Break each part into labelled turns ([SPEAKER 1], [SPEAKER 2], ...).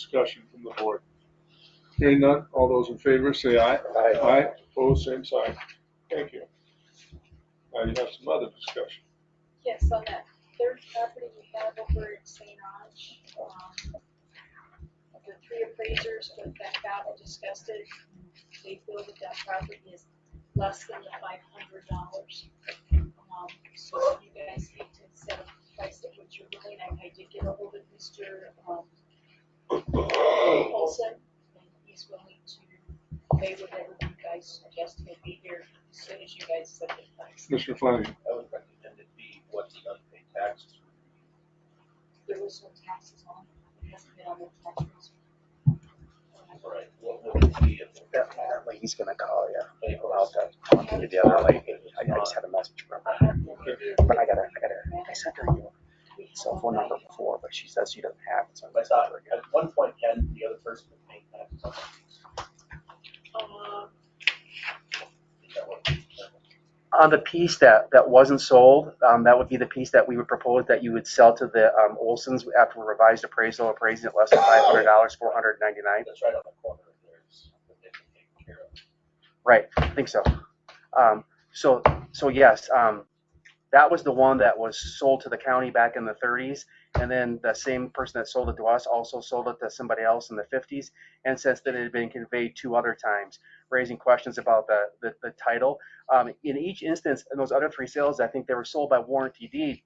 [SPEAKER 1] Discussion from the board. Hearing none, all those in favor say aye.
[SPEAKER 2] Aye.
[SPEAKER 1] opposed, same sign. Thank you. Now you have some other discussion.
[SPEAKER 3] Yes, on that third property we have over at St. Ange, um, the three appraisers that that got and discussed it, they feel that that property is less than the five hundred dollars. Um, so you guys need to set a price at what you're willing, I, I did get a hold of Mr. um, Olson, and he's willing to pay whatever you guys suggest, he'll be here as soon as you guys set the price.
[SPEAKER 1] Commissioner Flanagan,
[SPEAKER 2] I would recommend it be what the unpaid taxes would
[SPEAKER 3] there was no taxes on it, it hasn't been on the tax rolls.
[SPEAKER 2] be. Right. What would it be if the
[SPEAKER 4] That, that lady's gonna call you.
[SPEAKER 2] unpaid
[SPEAKER 4] I'll
[SPEAKER 2] taxes?
[SPEAKER 4] have to talk to the other lady. I I just had a message from her. But I gotta, I gotta, I sent her your cell phone number before, but she says she doesn't have it, so
[SPEAKER 2] I
[SPEAKER 4] I
[SPEAKER 2] thought,
[SPEAKER 4] thought,
[SPEAKER 2] at one point, Ken, the other person was paying taxes on
[SPEAKER 3] Uh,
[SPEAKER 2] it.
[SPEAKER 4] On uh, the piece that, that wasn't sold, um, that would be the piece that we would propose that you would sell to the, um, Olsons after a revised appraisal, appraising it less than five hundred dollars, four hundred ninety-nine.
[SPEAKER 2] That's right on the corner, there's, that they can take care of.
[SPEAKER 4] Right, I think so. Um, so, so yes, um, that was the one that was sold to the county back in the thirties. And then the same person that sold it to us also sold it to somebody else in the fifties. And since then it had been conveyed two other times, raising questions about the, the, the title. Um, in each instance, in those other three sales, I think they were sold by warranty deed.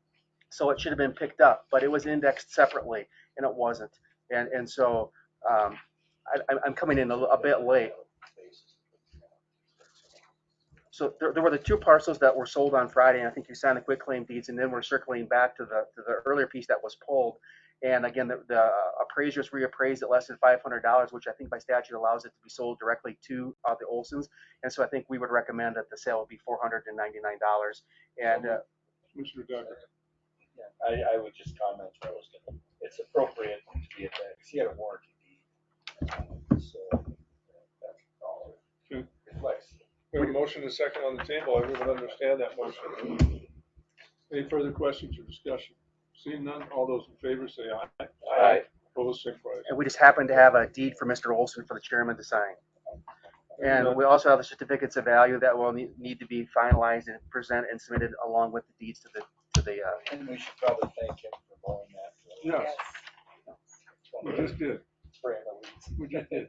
[SPEAKER 4] So it should have been picked up, but it was indexed separately and it wasn't. And, and so, um, I, I'm- I'm coming in a, li- a bit late. So there, there were the two parcels that were sold on Friday, and I think you signed the quick claim deeds, and then we're circling back to the, to the earlier piece that was pulled. And again, the, the appraisers reappraised at less than five hundred dollars, which I think by statute allows it to be sold directly to, uh, the Olsons. And so I think we would recommend that the sale would be four hundred and ninety-nine dollars. And, uh,
[SPEAKER 1] Commissioner Douglas.
[SPEAKER 2] Yeah, I, I would just comment, where I was gonna, it's appropriate to be indexed, he had a warranty deed. uh, So, uh, that's all it
[SPEAKER 1] Sure.
[SPEAKER 2] reflects.
[SPEAKER 1] We have a motion and a second on the table. Everyone understand that motion? Any further questions or discussion? Seeing none, all those in favor say aye.
[SPEAKER 2] Aye.
[SPEAKER 1] Opposed, same sign.
[SPEAKER 4] and we just happen to have a deed for Mr. Olson for the chairman to sign. And we also have the certificates of value that will need, need to be finalized and presented and submitted along with the deeds to the, to the, uh,
[SPEAKER 2] And we should probably thank him for blowing that.
[SPEAKER 1] Yes, we just did.
[SPEAKER 2] Spray in the weeds.
[SPEAKER 1] We just did.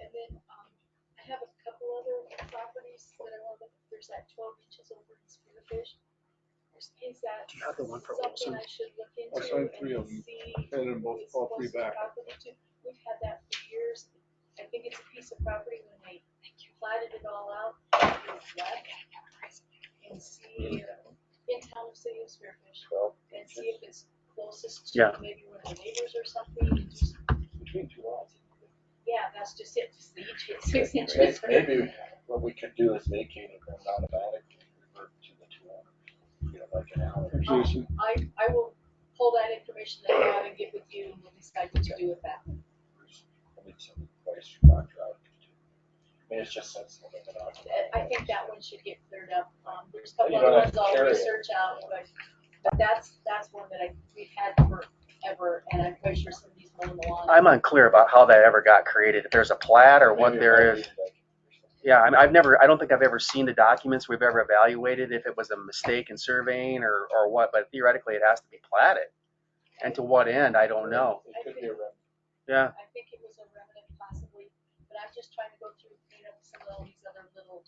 [SPEAKER 3] And then, um, I have a couple other properties that I want to, there's that twelve inches over in Spearfish. There's, is that
[SPEAKER 4] Do you have the one for
[SPEAKER 3] something
[SPEAKER 4] Olson? oh
[SPEAKER 3] I should look into
[SPEAKER 1] I signed three of
[SPEAKER 3] and
[SPEAKER 1] them.
[SPEAKER 3] see?
[SPEAKER 1] And then both,
[SPEAKER 3] is
[SPEAKER 1] all three
[SPEAKER 3] what's the
[SPEAKER 1] back.
[SPEAKER 3] property to- We've had that for years. I think it's a piece of property when they platted it all out. it was left, And see, uh, in town of City of Spearfish,
[SPEAKER 2] Well,
[SPEAKER 3] and see if it's closest
[SPEAKER 4] Yeah.
[SPEAKER 3] to maybe one of the neighbors or something. and just-
[SPEAKER 2] between two lots.
[SPEAKER 3] Yeah, that's just it, just the each hit six
[SPEAKER 2] Maybe-
[SPEAKER 3] inches.
[SPEAKER 2] Maybe what we could do is vacate it and automatically revert to the two owners, you know, like an alley. or something.
[SPEAKER 1] Jason,
[SPEAKER 3] I, I will pull that information that I have and get with you and we'll decide what to do with that.
[SPEAKER 2] I mean, some place you might drive to. I mean, it's just sensible. they're not
[SPEAKER 3] I- I think that one should get cleared up. Um, there's a couple
[SPEAKER 2] You
[SPEAKER 3] other
[SPEAKER 2] don't have
[SPEAKER 3] ones
[SPEAKER 2] to
[SPEAKER 3] I'll
[SPEAKER 2] carry it.
[SPEAKER 3] research out, but, but that's, that's one that I, we've had forever and I'm pretty sure somebody's mowing the lawn.
[SPEAKER 4] I'm unclear about how that ever got created, if there's a plat or what
[SPEAKER 2] Maybe
[SPEAKER 4] there
[SPEAKER 2] if I read
[SPEAKER 4] is.
[SPEAKER 2] it, I can-
[SPEAKER 4] Yeah, I mean, I've never, I don't think I've ever seen the documents we've ever evaluated, if it was a mistake in surveying or, or what, but theoretically it has to be platted. And to what end, I don't know.
[SPEAKER 2] It could be a rep.
[SPEAKER 4] Yeah,
[SPEAKER 3] I think it was a remnant possibly, but I'm just trying to go through and clean up some of all these other little,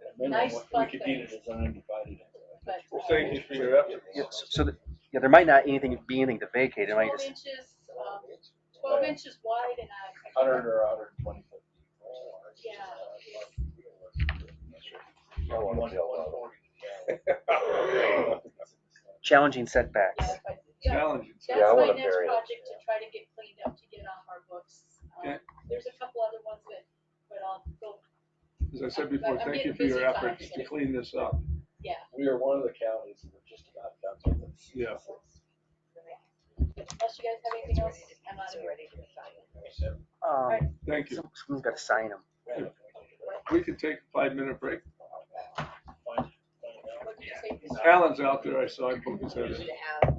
[SPEAKER 2] at a minimum,
[SPEAKER 3] Nice
[SPEAKER 2] what
[SPEAKER 3] fun
[SPEAKER 2] We could need a design divided.
[SPEAKER 3] but.
[SPEAKER 1] Well, thank you for your efforts.
[SPEAKER 3] uh,
[SPEAKER 4] yeah, so- so, the- yeah, there might not anything, be anything to vacate, it might
[SPEAKER 3] Twelve
[SPEAKER 4] just,
[SPEAKER 3] inches, um, twelve inches wide and I. I can't-
[SPEAKER 2] Hundred or hundred and twenty foot.
[SPEAKER 3] Yeah.
[SPEAKER 2] No one will know.
[SPEAKER 4] challenging setbacks.
[SPEAKER 3] Yeah, but, yeah,
[SPEAKER 1] Challenging.
[SPEAKER 3] that's
[SPEAKER 2] Yeah,
[SPEAKER 3] my
[SPEAKER 2] I wanna
[SPEAKER 3] next
[SPEAKER 2] bury it,
[SPEAKER 3] project to
[SPEAKER 2] yeah.
[SPEAKER 3] try to get cleaned up, to get off our books. Um,
[SPEAKER 1] Okay.
[SPEAKER 3] There's a couple other ones that, but I'll go,
[SPEAKER 1] As I said before, thank you for your efforts to clean this up.
[SPEAKER 3] yeah.
[SPEAKER 2] We are one of the counties that are just about done with this.
[SPEAKER 1] Yeah.
[SPEAKER 3] Unless you guys have anything else, I'm out of here.
[SPEAKER 4] Um,
[SPEAKER 1] Thank you.
[SPEAKER 4] some- Someone's gotta sign them.
[SPEAKER 1] We can take a five-minute break.
[SPEAKER 3] What did you say?
[SPEAKER 1] Alan's out there, I saw him poke his head in.
[SPEAKER 5] to have